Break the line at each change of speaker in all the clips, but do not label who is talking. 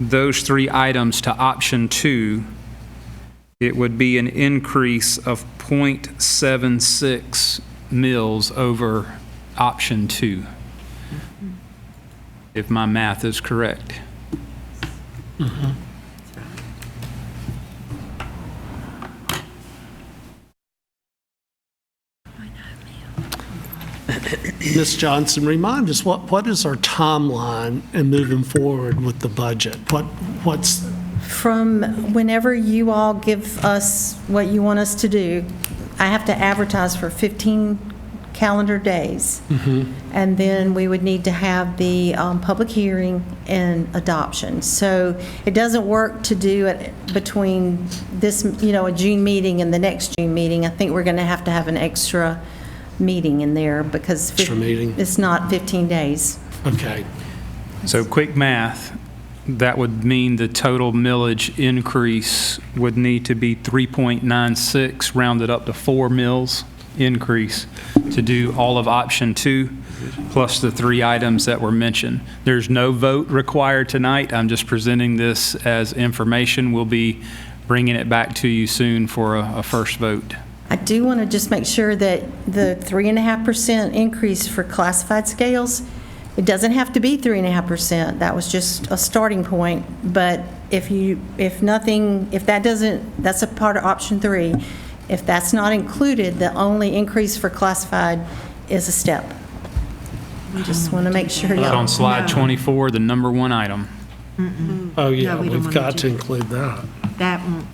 those three items to option two, it would be an increase of .76 mills over option two, if my math is correct.
Ms. Johnson, remind us, what, what is our timeline in moving forward with the budget? What, what's,
From whenever you all give us what you want us to do, I have to advertise for 15 calendar days.
Mm-hmm.
And then we would need to have the um, public hearing and adoption. So it doesn't work to do it between this, you know, a June meeting and the next June meeting. I think we're going to have to have an extra meeting in there because fif-
Extra meeting.
it's not 15 days.
okay,
So quick math, that would mean the total millage increase would need to be 3.96, rounded up to 4 mills increase to do all of option two, plus the three items that were mentioned. There's no vote required tonight. I'm just presenting this as information. We'll be bringing it back to you soon for a, a first vote.
I do want to just make sure that the three and a half percent increase for classified scales, it doesn't have to be three and a half percent. That was just a starting point. But if you, if nothing, if that doesn't, that's a part of option three. If that's not included, the only increase for classified is a step. Just want to make sure
It's on
y'all,
slide 24, the number one item.
oh yeah,
No, we don't
we've
wanna
got to
do-
include that.
That won't.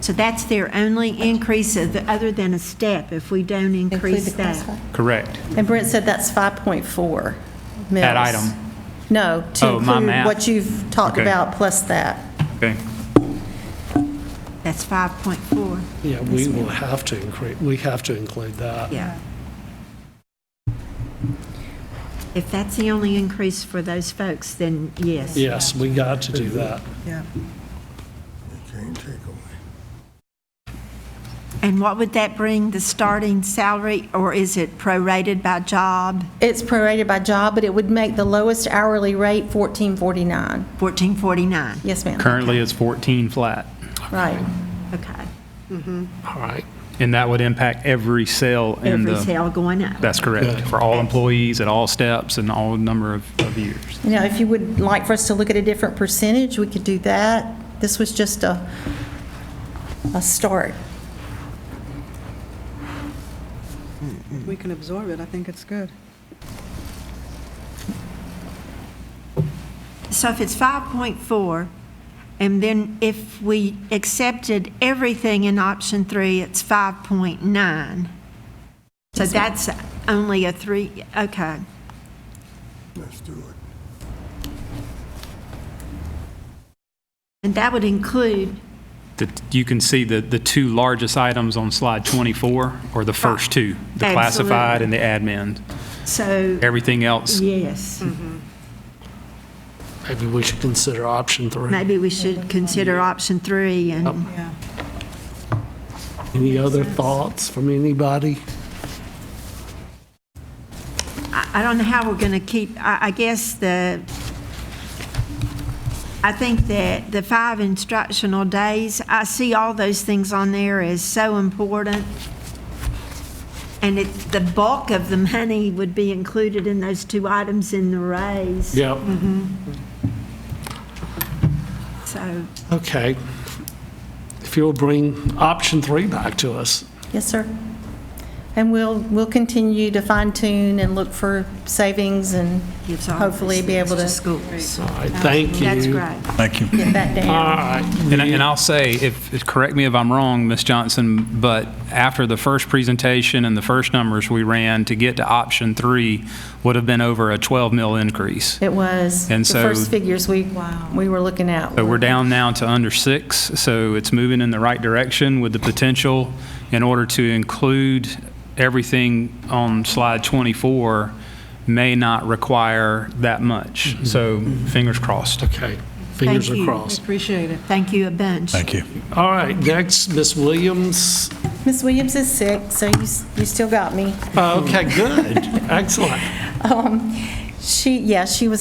So that's their only increase of, other than a step, if we don't
include
increase
the classified.
that.
Correct.
And Brent said that's 5.4 mils.
That item.
No, to
Oh, my
include
math.
what you've talked
Okay.
about plus that.
Okay.
That's five point four,
Yeah, we will have to increase, we have to include that.
yeah. If that's the only increase for those folks, then yes.
Yes, we got to do that.
And what would that bring, the starting salary, or is it prorated by job,
It's prorated by job, but it would make the lowest hourly rate fourteen forty-nine.
fourteen forty-nine?
Yes, ma'am.
Currently, it's 14 flat.
Right.
Okay.
All right.
And that would impact every cell in
Every
the,
sale going up.
that's correct,
Yeah.
for all employees at all steps and all number of, of years.
You know, if you would like for us to look at a different percentage, we could do that. This was just a, a start.
We can absorb it, I think it's good.
So if it's 5.4, and then if we accepted everything in option three, it's 5.9. So that's only a three, okay.
Let's do it.
And that would include,
The- You can see the, the two largest items on slide 24 are the first two, the classified and the admin.
so,
Everything else,
yes,
Maybe we should consider option three.
maybe we should consider option three and,
Yeah.
Any other thoughts from anybody?
I I don't know how we're going to keep, I I guess the, I think that the five instructional days, I see all those things on there as so important. And it, the bulk of the money would be included in those two items in the raise.
Yep.
Mm-hmm. So,
Okay. If you'll bring option three back to us.
Yes, sir. And we'll, we'll continue to fine tune and look for savings and
gives all those
hopefully be
things
able
to
to
schools.
All right, thank you.
That's great.
Thank you.
get that down.
All right.
And, I- and I'll say, if, if- correct me if I'm wrong, Ms. Johnson, but after the first presentation and the first numbers we ran to get to option three would have been over a 12 mil increase.
It was the
And so-
first figures we, we were looking at.
So we're down now to under six, so it's moving in the right direction with the potential in order to include everything on slide 24 may not require that much. So fingers crossed.
Okay, fingers
Thank
are
you.
crossed.
Appreciate it.
Thank you a bunch.
Thank you.
All right, next, Ms. Williams.
Ms. Williams is sick, so you, s- you
Uh,
still got me.
Okay, good, excellent.
Um, She, yeah, she was